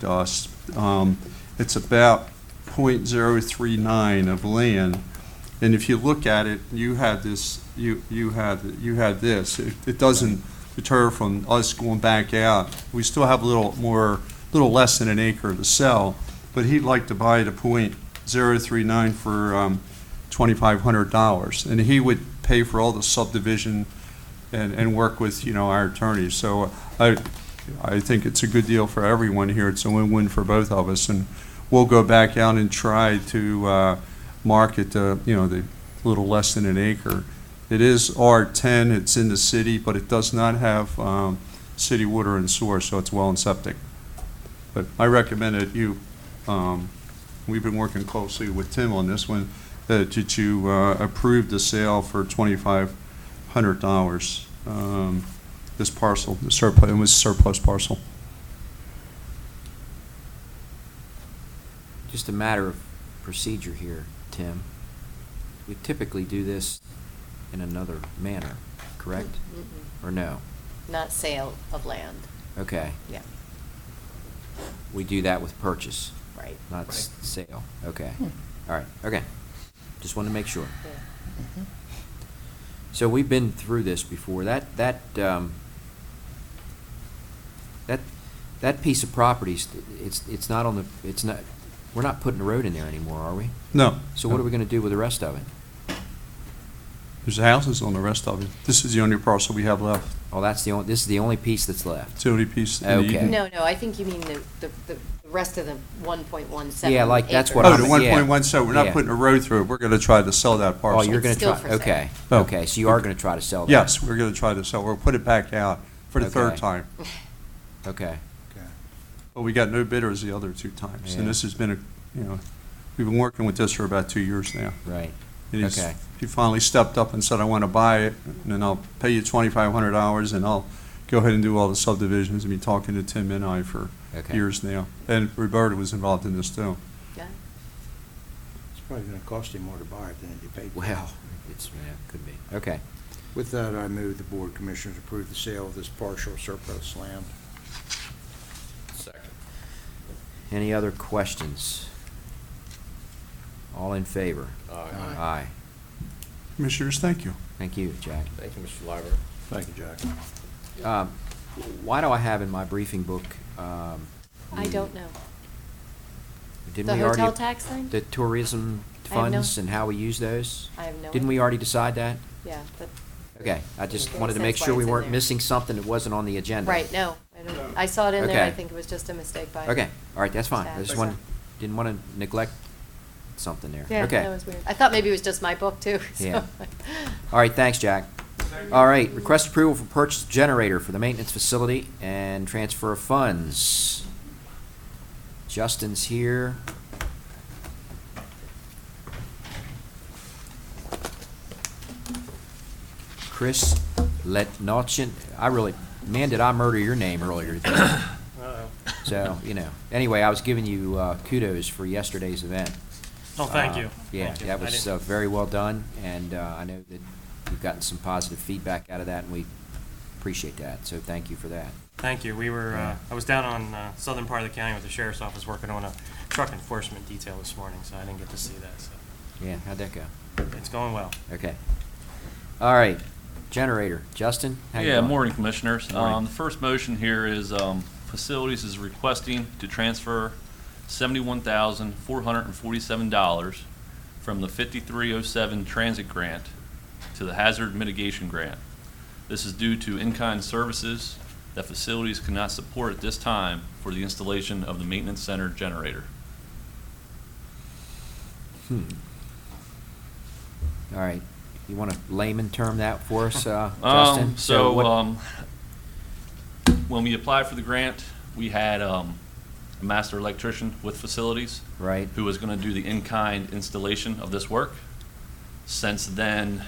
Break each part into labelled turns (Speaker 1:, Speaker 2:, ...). Speaker 1: to us. Um, It's about .039 of land, and if you look at it, you had this, you, you had, you had this. It it doesn't deter from us going back out. We still have a little more, little less than an acre to sell, but he'd like to buy the .039 for um, $2,500. And he would pay for all the subdivision and, and work with, you know, our attorneys. So I, I think it's a good deal for everyone here. It's a win-win for both of us, and we'll go back out and try to uh, market, the, you know, the little less than an acre. It is R10, it's in the city, but it does not have um, city water and sewer, so it's well and septic. But I recommend that you, um, we've been working closely with Tim on this one, that that you uh, approve the sale for $2,500. um, this parcel, the surplus, it was surplus parcel.
Speaker 2: Just a matter of procedure here, Tim. We typically do this in another manner, correct?
Speaker 3: Mm-mm.
Speaker 2: Or no?
Speaker 3: Not sale of land,
Speaker 2: Okay,
Speaker 3: yeah,
Speaker 2: we do that with purchase,
Speaker 3: right.
Speaker 2: not s- sale. Okay,
Speaker 3: Hmm.
Speaker 2: all right, okay. Just wanted to make sure.
Speaker 3: Yeah.
Speaker 4: Mm-hmm.
Speaker 2: So we've been through this before. That, that, um, that, that piece of property, it's, it's not on the, it's not, we're not putting a road in there anymore, are we?
Speaker 1: No.
Speaker 2: So what are we gonna do with the rest of it?
Speaker 1: There's houses on the rest of it. This is the only parcel we have left.
Speaker 2: Oh, that's the only, this is the only piece that's left.
Speaker 1: It's the only piece. in the-
Speaker 2: Okay.
Speaker 3: No, no, I think you mean the, the, the rest of the one point one seven.
Speaker 2: Yeah, like that's what
Speaker 1: Oh,
Speaker 2: I'm.
Speaker 1: the
Speaker 2: yeah.
Speaker 1: one point one, so we're not
Speaker 2: Yeah.
Speaker 1: putting a road through it. We're gonna try to sell that
Speaker 2: Oh,
Speaker 1: parcel.
Speaker 2: you're gonna
Speaker 3: It's still
Speaker 2: try,
Speaker 3: for sale.
Speaker 2: okay,
Speaker 1: Oh.
Speaker 2: okay, so you are gonna try to sell that?
Speaker 1: Yes, we're gonna try to sell. We'll put it back out for the third
Speaker 2: Okay.
Speaker 1: time.
Speaker 2: Okay,
Speaker 1: But we got no bidders the other two times. And
Speaker 2: Yeah.
Speaker 1: this has been a, you know, we've been working with this for about two years now.
Speaker 2: right,
Speaker 1: And he's-
Speaker 2: Okay.
Speaker 1: He finally stepped up and said, I want to buy it, and then I'll pay you twenty-five hundred dollars, and I'll go ahead and do all the subdivisions. I've been talking to Tim and I for
Speaker 2: Okay.
Speaker 1: years now. And Roberta was involved in this too.
Speaker 3: Yeah.
Speaker 4: It's probably gonna cost you more to buy it than if you paid. for it.
Speaker 2: well, it's, yeah, could be, okay.
Speaker 4: With that, I move the Board of Commissioners approve the sale of this partial surplus land.
Speaker 2: Any other questions? All in favor?
Speaker 4: Aye.
Speaker 2: Aye,
Speaker 1: Commissioners, thank you.
Speaker 2: thank you, Jack.
Speaker 5: Thank you, Mr. Liver.
Speaker 4: Thank you, Jack.
Speaker 2: Um, Why do I have in my briefing book, um?
Speaker 3: I
Speaker 2: the-
Speaker 3: don't know.
Speaker 2: Didn't
Speaker 3: The
Speaker 2: we already-
Speaker 3: hotel tax thing?
Speaker 2: The tourism
Speaker 3: I have no-
Speaker 2: funds and how we use those?
Speaker 3: I have no
Speaker 2: Didn't we
Speaker 3: idea.
Speaker 2: already decide that?
Speaker 3: Yeah, but,
Speaker 2: Okay, I just
Speaker 3: Makes
Speaker 2: wanted to make
Speaker 3: sense why
Speaker 2: sure we
Speaker 3: it's in
Speaker 2: weren't
Speaker 3: there.
Speaker 2: missing something that wasn't on the agenda.
Speaker 3: right, no, I don't, I saw it in there, I
Speaker 2: Okay.
Speaker 3: think it was just a mistake by.
Speaker 2: Okay, all right, that's fine. I
Speaker 3: staff,
Speaker 2: just
Speaker 3: so.
Speaker 2: wanted, didn't want to neglect something there.
Speaker 3: Yeah,
Speaker 2: Okay.
Speaker 3: that was weird. I thought maybe it was just my book too,
Speaker 2: Yeah.
Speaker 3: so.
Speaker 2: All right, thanks, Jack. All right, request approval for purchase of generator for the maintenance facility and transfer of funds. Justin's here. Chris Letnochin, I really, man, did I murder your name earlier today. So, you know, anyway, I was giving you uh, kudos for yesterday's event.
Speaker 6: Oh, thank
Speaker 2: Uh,
Speaker 6: you.
Speaker 2: Yeah,
Speaker 6: Thank you.
Speaker 2: that
Speaker 6: I
Speaker 2: was
Speaker 6: didn't-
Speaker 2: uh, very well done, and uh, I know that you've gotten some positive feedback out of that, and we appreciate that, so thank you for that.
Speaker 6: Thank you. We were,
Speaker 2: Yeah.
Speaker 6: uh, I was down on, uh, southern part of the county with the sheriff's office working on a truck enforcement detail this morning, so I didn't get to see that, so
Speaker 2: Yeah, how'd that go?
Speaker 6: it's going well.
Speaker 2: Okay. All right, generator, Justin? how you
Speaker 7: Yeah,
Speaker 2: doing?
Speaker 7: morning, Commissioners.
Speaker 2: Morning.
Speaker 7: Um, The first motion here is um, Facilities is requesting to transfer $71,447 from the 5307 Transit Grant to the Hazard Mitigation Grant. This is due to in-kind services that facilities cannot support at this time for the installation of the maintenance center generator.
Speaker 2: Hmm. All right, you want to layman term that for us, uh, Justin?
Speaker 7: Um, so,
Speaker 2: what-
Speaker 7: um, when we applied for the grant, we had, um, a master electrician with facilities.
Speaker 2: Right.
Speaker 7: Who was gonna do the in-kind installation of this work. Since then,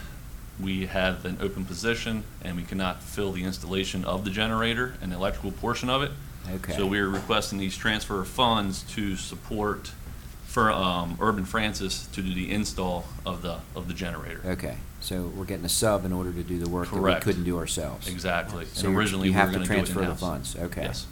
Speaker 7: we have an open position and we cannot fill the installation of the generator and electrical portion of it.
Speaker 2: Okay.
Speaker 7: So we're requesting these transfer of funds to support for, um, Urban Francis to do the install of the, of the generator.
Speaker 2: Okay, so we're getting a sub in order to do the work that we
Speaker 7: Correct.
Speaker 2: couldn't do ourselves.
Speaker 7: Exactly.
Speaker 2: So
Speaker 7: So
Speaker 2: you're-
Speaker 7: originally,
Speaker 2: you
Speaker 7: we were
Speaker 2: have to
Speaker 7: going to do it
Speaker 2: transfer the
Speaker 7: in-house.
Speaker 2: funds, okay.
Speaker 7: Yes.